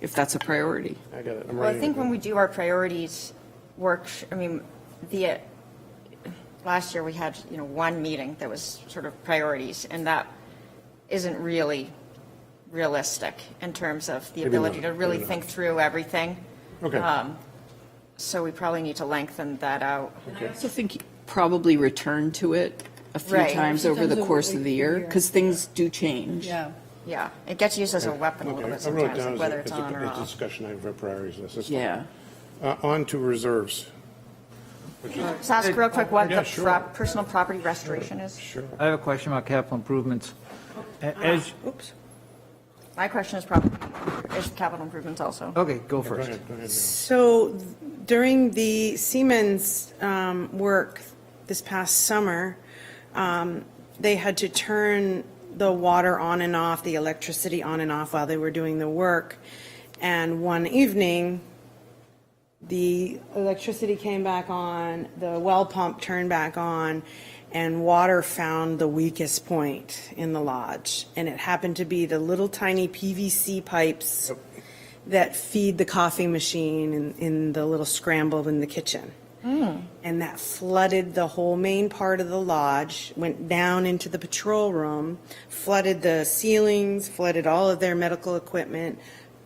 if that's a priority. I got it, I'm Well, I writing think it. when we do our priorities work, I mean, the, uh, last year we had, you know, one meeting that was sort of priorities, and that isn't really realistic in terms of the Maybe not, ability to really maybe not. think through everything. um, Okay, So we probably need to lengthen that out. I also think you probably return to it a few Right. times Few over the times course over of the the year, year. because things do change. Yeah. Yeah, it gets used as a weapon a okay. little bit I wrote it sometimes, down like as whether a, it's as on or a- as a off. discussion item for priorities list. That's fine. Yeah. Uh, On to reserves. Just ask real quick what Yeah, the sure. prop- personal property restoration is. I have a question about capital improvements. A- As, Oops. My question is property, is capital improvements also. okay, go Go first. ahead, go ahead. So during the Siemens um, work this past summer, um, they had to turn the water on and off, the electricity on and off while they were doing the work. And one evening, the electricity came back on, the well pump turned back on, and water found the weakest point in the lodge. And it happened to be the little tiny PVC pipes that feed the coffee machine in, in the little scramble in the kitchen. And that flooded the whole main part of the lodge, went down into the patrol room, flooded the ceilings, flooded all of their medical equipment,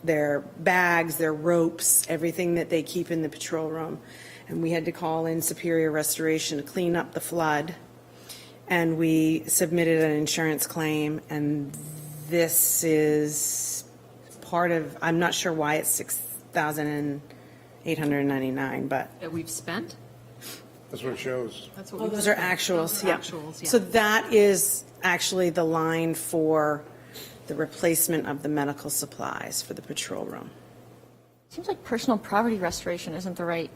their bags, their ropes, everything that they keep in the patrol room. And we had to call in Superior Restoration to clean up the flood. And we submitted an insurance claim, and this is part of, I'm not sure why it's 6,899, but that we've spent? That's what it shows. That's Oh, what we those are actuals, yeah. Actuals, yeah. So that is actually the line for the replacement of the medical supplies for the patrol room. Seems like personal property restoration isn't the right,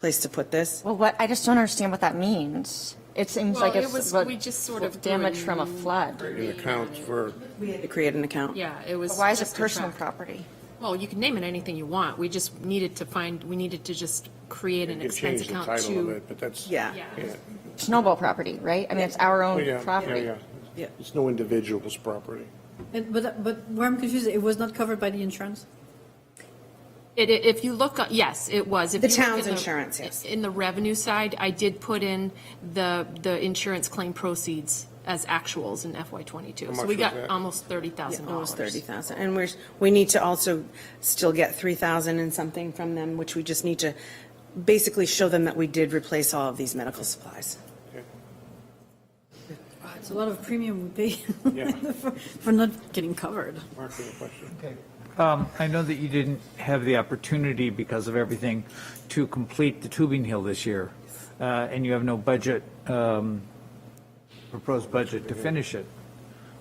Place to put this. well, what, I just don't understand what that means. It seems Well, like it it's. was- what- we just sort what of Damage grew- from a flood. It accounts for, We had to create an account. Yeah, it was. But Why is it just a personal track. property? Well, you can name it anything you want. We just needed to find, we needed to just create an you expense changed the account title of to. it, but that's. Yeah. Yeah. Snowball property, right? I mean, it's our Oh, own yeah, yeah, property. yeah. Yeah. It's no individual's property. And, but, but where I'm confused, it was not covered by the insurance? It, it- if you look, up- yes, it was. If The you look town's in the- insurance, yes. In the revenue side, I did put in the, the insurance claim proceeds as actuals in FY twenty-two. much So we was got that? almost thirty thousand dollars. Almost 30,000. And we're, we need to also still get 3,000 and something from them, which we just need to basically show them that we did replace all of these medical supplies. It's a lot of premium we Yeah. pay for, for not getting covered. Mark, you have a question? Um, I know that you didn't have the opportunity because of everything to complete the tubing hill this year, uh, and you have no budget, um, proposed budget to finish it.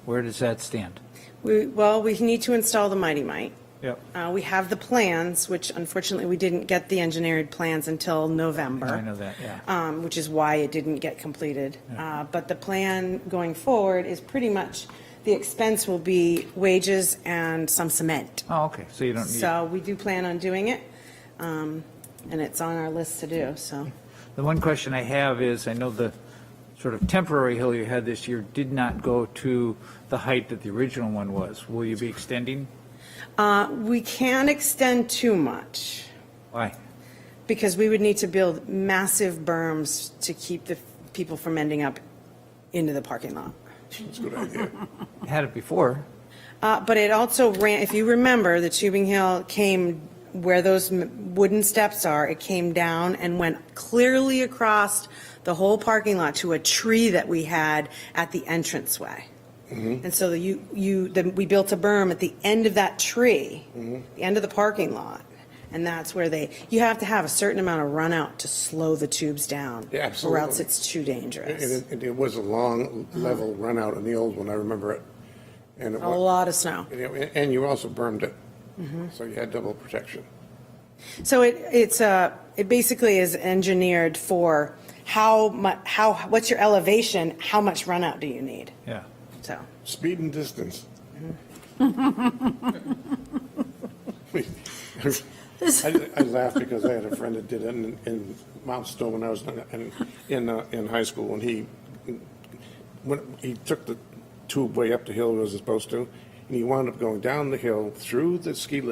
Where does that stand? We, well, we need to install the Mighty Mite. Yep. Uh, we have the plans, which unfortunately we didn't get the engineered plans until November. I know that, yeah. Um, which is why it didn't get completed. Uh, but the plan going forward is pretty much, the expense will be wages and some cement. Oh, okay, so you don't need, So we do plan on doing it, um, and it's on our list to do, so. the one question I have is, I know the sort of temporary hill you had this year did not go to the height that the original one was. Will you be extending? Uh, we can't extend too much, Why? because we would need to build massive berms to keep the people from ending up into the parking lot. That's a good idea. You Had it before. Uh, But it also ran, if you remember, the tubing hill came where those m- wooden steps are, it came down and went clearly across the whole parking lot to a tree that we had at the entranceway. Mm-hmm. And so you, you, then we built a berm at the end of that tree, Mm-hmm. the end of the parking lot. And that's where they, you have to have a certain amount of runout to slow the tubes down. Yeah, Or else absolutely. it's too dangerous. And it, and it was a long level Uh-huh. run out in the old one, I remember it. And it A wa- lot of snow. and it- and you also burned it, Mm-hmm. so you had double protection. So it, it's a, it basically is engineered for how mu, how, what's your elevation, how much runout do you need? Yeah. So, Speed and distance. I I laugh because I had a friend that did it in, in Mount Stowe when I was in, in, uh, in high school, and he, when, he took the tube way up the hill it was supposed to, and you wound up going down the hill through the ski lift